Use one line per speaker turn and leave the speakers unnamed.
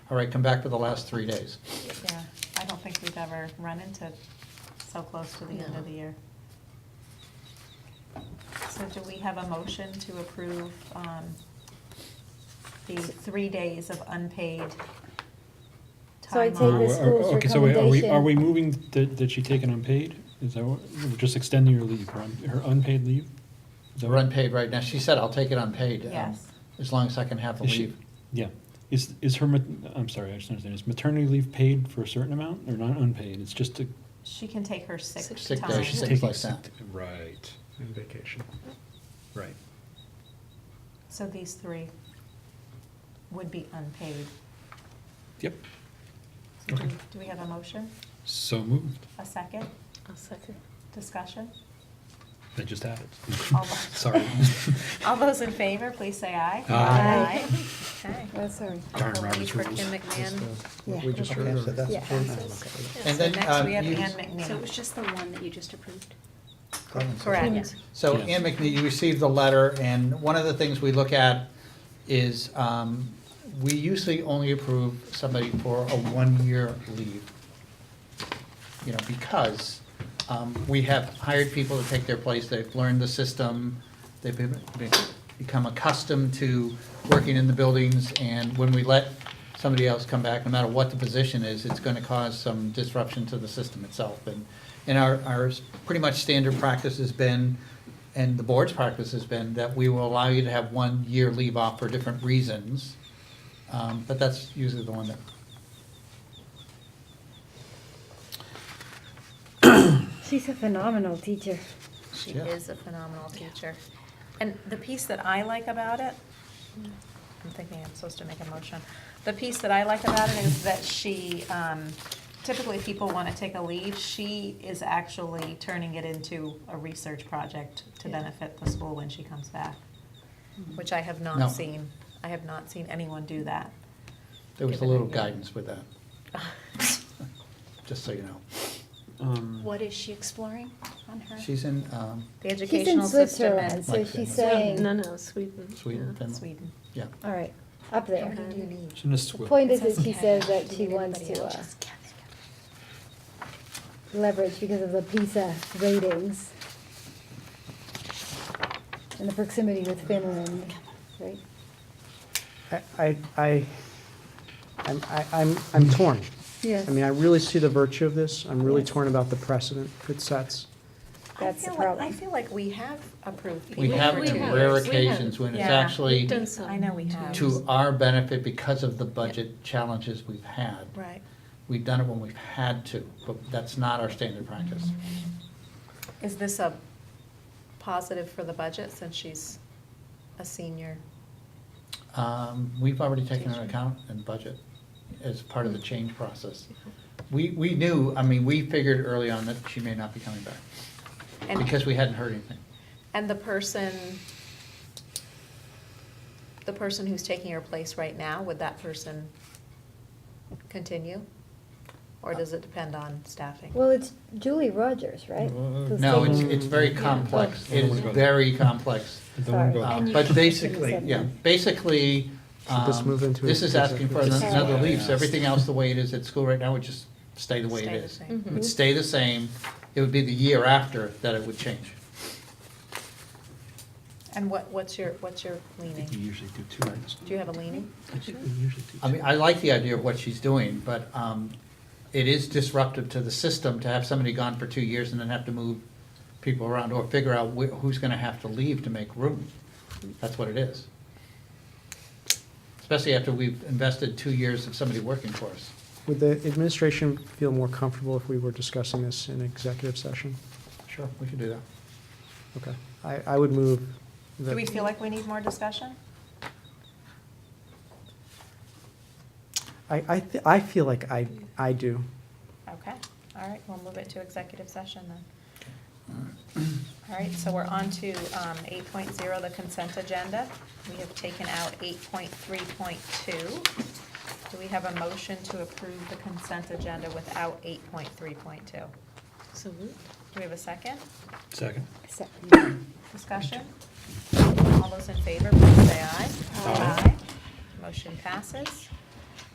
all right, come back for the last three days.
Yeah, I don't think we've ever run into so close to the end
No.
of the year. So do we have a motion to approve um, the three days of unpaid
So I
time
take
off?
the this-
Or- or-
school's
Okay, so wait, are we, are
recommendation.
we moving that, that she take an unpaid? Is that what, we're just extending her leave, her un- her unpaid leave? Is that
They're
what-
unpaid right now. She said, I'll take it unpaid. um,
Yes.
As long as I can have the
Is she-
leave.
Yeah, is, is her, mat- I'm sorry, I just don't understand, is maternity leave paid for a certain amount or not unpaid? It's just a.
She can take her sick
Sick days,
time.
she's
she's
sick.
taking
like
sick-
that.
Right,
and vacation.
right.
So these three would be unpaid.
Yep,
So do
Okay.
do we have a motion?
so moved.
A second?
I'll second.
Discussion?
I just added.
All right.
Sorry.
All those in favor, please say aye.
Aye.
Aye. Okay.
Oh, sorry.
Darn
We'll
Robert's
leave for Kim
rules.
McMahon.
Yeah.
We just
Okay,
heard.
so that's
Yeah.
approved.
So
And then,
next
um,
we have
you-
Ann
So it was
McNeil.
just the one that you just approved?
Clemens.
Correct.
Yes.
So
Yes.
Ann McNeil, you received the letter, and one of the things we look at is, um, we usually only approve somebody for a one-year leave. You know, because, um, we have hired people to take their place, they've learned the system, they've been, been- become accustomed to working in the buildings, and when we let somebody else come back, no matter what the position is, it's gonna cause some disruption to the system itself, and, and our, our s- pretty much standard practice has been, and the board's practice has been, that we will allow you to have one year leave off for different reasons, um, but that's usually the one that.
She's a phenomenal teacher.
She
Yeah.
is a phenomenal teacher. And the piece that I like about it, I'm thinking I'm supposed to make a motion. The piece that I like about it is that she, um, typically people want to take a leave. She is actually turning it into a research project to
Yeah. Mm-hmm.
benefit the school when she comes back,
Mm-hmm.
which I have
No.
not seen. I have not seen anyone do that.
There was a
Given
little
that, yeah.
guidance with that. Just so you know.
Um,
What is she exploring on her?
She's in um,
The
She's in
educational system
Switzerland,
in
so
Like Finland.
she's saying,
No, no, Sweden.
Sweden,
yeah.
Finland.
Sweden.
Yeah.
all right, up there.
do you
need?
Shouldn't have
The
swi-
point is
It says
that she
Kevin.
says that
Do you
she
need
wants
anybody
to
else?
uh,
Just Kevin, Kevin.
leverage because of the PISA ratings and the proximity with Finland, right?
I- I, I, I'm, I- I'm, I'm torn.
Yes.
I mean, I really see the virtue of this. I'm really
Yes.
torn about the precedent it sets.
That's
I
the
feel like- I
problem.
feel like we have approved people.
We have
for
it
we
to
two
have,
rare
we have.
occasions when it's
Yeah.
actually
We've done some.
I know we have.
to our benefit because of the budget challenges we've had.
Right.
We've done it when we've had to, but that's not our standard practice.
Is this a positive for the budget since she's a senior?
Um, We've already taken into account in budget as part of the change process. We, we knew, I mean, we figured early on that she may not be coming back
And,
because we hadn't heard anything.
and the person, the person who's taking her place right now, would that person continue? Or does it depend on staffing?
Well, it's Julie Rogers, right? Who's
No, it's,
taking-
it's very complex. It is very complex.
I don't wanna go
Sorry.
Um,
And you
But
should
basically,
consider
yeah,
that.
basically,
Should this
um,
move into
this is asking for
executive
session?
another
Yeah.
leave, so everything else the way it is at school right now would just stay the way it
Stay the
is.
same. Mm-hmm.
It would
Mhm.
stay the same, it would be the year after that it would change.
And what, what's your, what's your
I think you
leaning?
usually do two items.
Do you have a leaning?
I think we usually do
I mean,
two.
I like the idea of what she's doing, but um, it is disruptive to the system to have somebody gone for two years and then have to move people around or figure out wh- who's gonna have to leave to make room. That's what it is. Especially after we've invested two years of somebody working for us.
Would the administration feel more comfortable if we were discussing this in executive session?
Sure, we could do that.
Okay. I, I would move
Do
that.
we feel like we need more discussion?
I, I, th- I feel like I, I do.
Okay, all right, we'll move it to executive session then. All right, so we're on to um, 8.0, the consent agenda. We have taken out 8.3.2. Do we have a motion to approve the consent agenda without 8.3.2? Do
So moved.
we have a second?
Second.
Second.
Discussion? All those in favor, please say aye.
Aye.
Motion passes.